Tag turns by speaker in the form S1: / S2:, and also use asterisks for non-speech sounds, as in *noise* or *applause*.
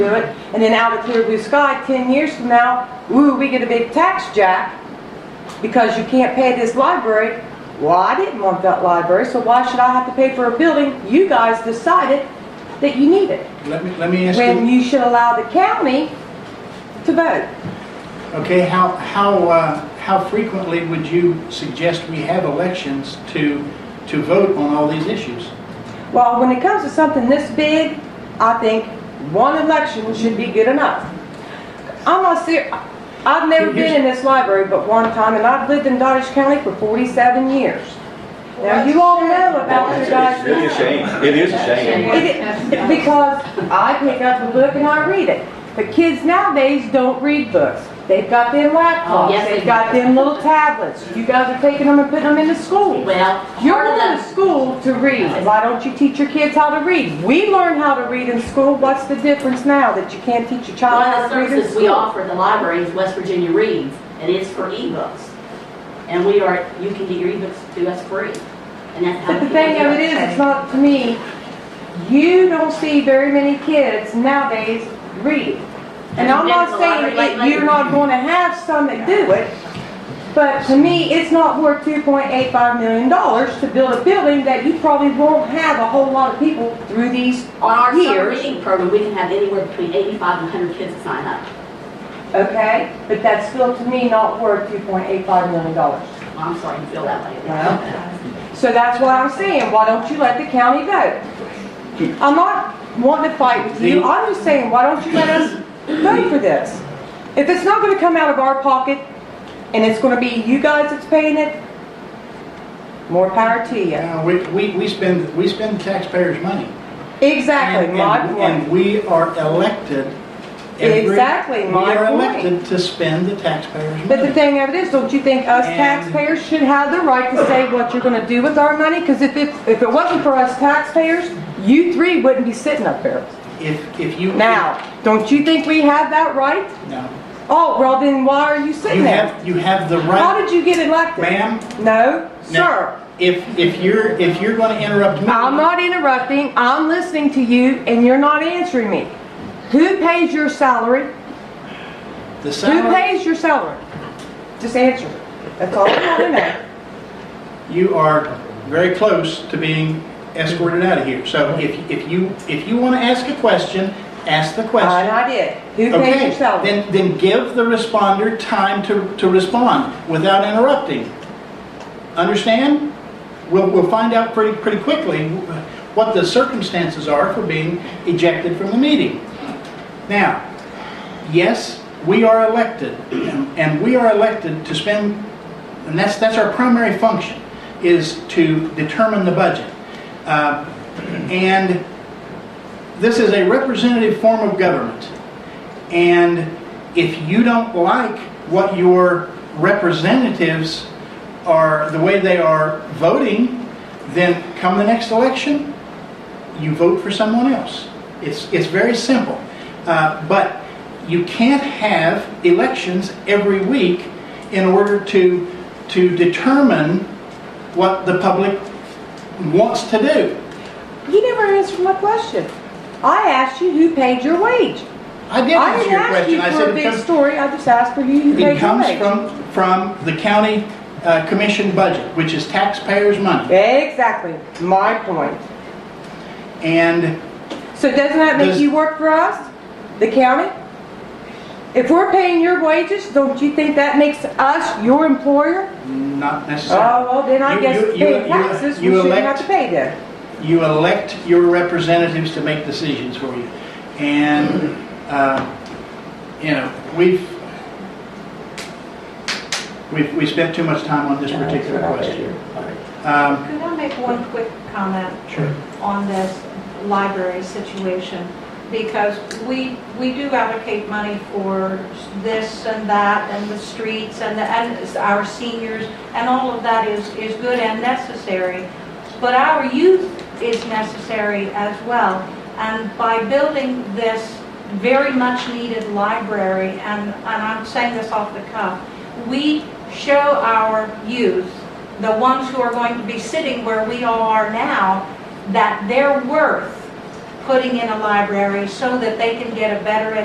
S1: do it, and then out of clear blue sky, ten years from now, ooh, we get a big tax jack because you can't pay this library. Well, I didn't want that library, so why should I have to pay for a building? You guys decided that you need it,
S2: Let me, let me ask
S1: when
S2: you,
S1: you should allow the county to vote.
S2: okay, how, how, uh, how frequently would you suggest we have elections to, to vote on all these issues?
S1: Well, when it comes to something this big, I think one election should be good enough. I'm not serious, I've never been in this library but one time, and I've lived in Dottage County for 47 years. Now, you all know about your guys'
S3: It is a shame. It is a shame.
S1: It- it- Because I pick up a book and I read it. But kids nowadays don't read books. They've got them
S4: Oh,
S1: laptops,
S4: yes, they
S1: they've got
S4: do.
S1: them little tablets. You guys are taking them and putting them into school.
S4: Well,
S1: You're
S4: part of
S1: going to
S4: that-
S1: school to read. Why don't you teach your kids how to read? We learn how to read in school. What's the difference now that you can't teach your child
S4: One
S1: how
S4: of the
S1: to read in
S4: services we
S1: school?
S4: offer at the library is West Virginia Reads, and it's for ebooks. And we are, you can get your ebooks to us free. And
S1: *laughs*
S4: that's how.
S1: But the
S4: people
S1: thing
S4: do
S1: of it is, it's not to me, you don't see very many kids nowadays reading. And I'm not saying that you're not gonna have some that do it, but to me, it's not worth two point eight five million dollars to build a building that you probably won't have a whole lot of people through these
S4: On our summer
S1: years,
S4: reading program, we can have anywhere between 85 and 100 kids sign up.
S1: okay? But that's still, to me, not worth two point eight five million dollars.
S4: Well, I'm sorry you feel that way.
S1: Well. So that's what I'm saying, why don't you let the county vote? I'm not wanting to fight with you, I'm just saying, why don't you let us vote for this? If it's not gonna come out of our pocket, and it's gonna be you guys that's paying it, more power to you.
S2: Uh, we, we, we spend, we spend taxpayers' money.
S1: Exactly,
S2: And-
S1: my
S2: and-
S1: point.
S2: And we are elected. every-
S1: Exactly, my
S2: We are
S1: point.
S2: elected to spend the taxpayers' money.
S1: But the thing of it is, don't you think us
S2: And-
S1: taxpayers should have the right to say what you're gonna do with our money? Because if it, if it wasn't for us taxpayers, you three wouldn't be sitting up there.
S2: If, if you.
S1: Now, don't you think we have that right?
S2: No.
S1: Oh, well then why are you sitting
S2: You
S1: there?
S2: have, you have the
S1: How
S2: right,
S1: did you get elected?
S2: ma'am,
S1: No,
S2: No.
S1: sir.
S2: if, if you're, if you're going to interrupt me.
S1: I'm not interrupting. I'm listening to you and you're not answering me. Who pays your salary?
S2: The
S1: Who
S2: salary,
S1: pays your salary? Just answer. That's all I want to know.
S2: you are very close to being escorted out of here. So if, if you, if you want to ask a question, ask the question.
S1: And I did. Who pays
S2: Okay,
S1: your salary?
S2: then, then give the responder time to, to respond without interrupting. Understand? We'll, we'll find out pretty, pretty quickly what the circumstances are for being ejected from the meeting. Now, yes, we are elected, and we are elected to spend, and that's, that's our primary function, is to determine the budget. Uh, And this is a representative form of government. And if you don't like what your representatives are, the way they are voting, then come the next election, you vote for someone else. It's, it's very simple. Uh, but you can't have elections every week in order to, to determine what the public wants to do.
S1: You never answered my question. I asked you who paid your wage.
S2: I did
S1: I
S2: answer
S1: didn't
S2: your
S1: ask
S2: question.
S1: you
S2: I
S1: for a
S2: said
S1: big
S2: come-
S1: story. I just asked for you who
S2: It
S1: paid your
S2: comes
S1: wage.
S2: from, from the county uh, commission budget, which is taxpayers' money.
S1: Exactly, my point.
S2: And
S1: So doesn't that make
S2: Does-
S1: you work for us, the county? If we're paying your wages, don't you think that makes us your employer?
S2: not
S1: Oh,
S2: necessarily,
S1: well, then I
S2: You-
S1: guess
S2: you- you-
S1: paying
S2: you-
S1: taxes, we
S2: you
S1: shouldn't have
S2: elect-
S1: to pay them.
S2: you elect your representatives to make decisions for you. And, uh, you know, we've, we've, we spent too much time on this particular question. Um,
S5: Could I make one quick comment
S2: Sure.
S5: on this library situation? Because we, we do allocate money for this and that, and the streets, and the, and our seniors, and all of that is, is good and necessary. But our youth is necessary as well. And by building this very much needed library, and, and I'm saying this off the cuff, we show our youth, the ones who are going to be sitting where we all are now, that they're worth putting in a library so that they can get a better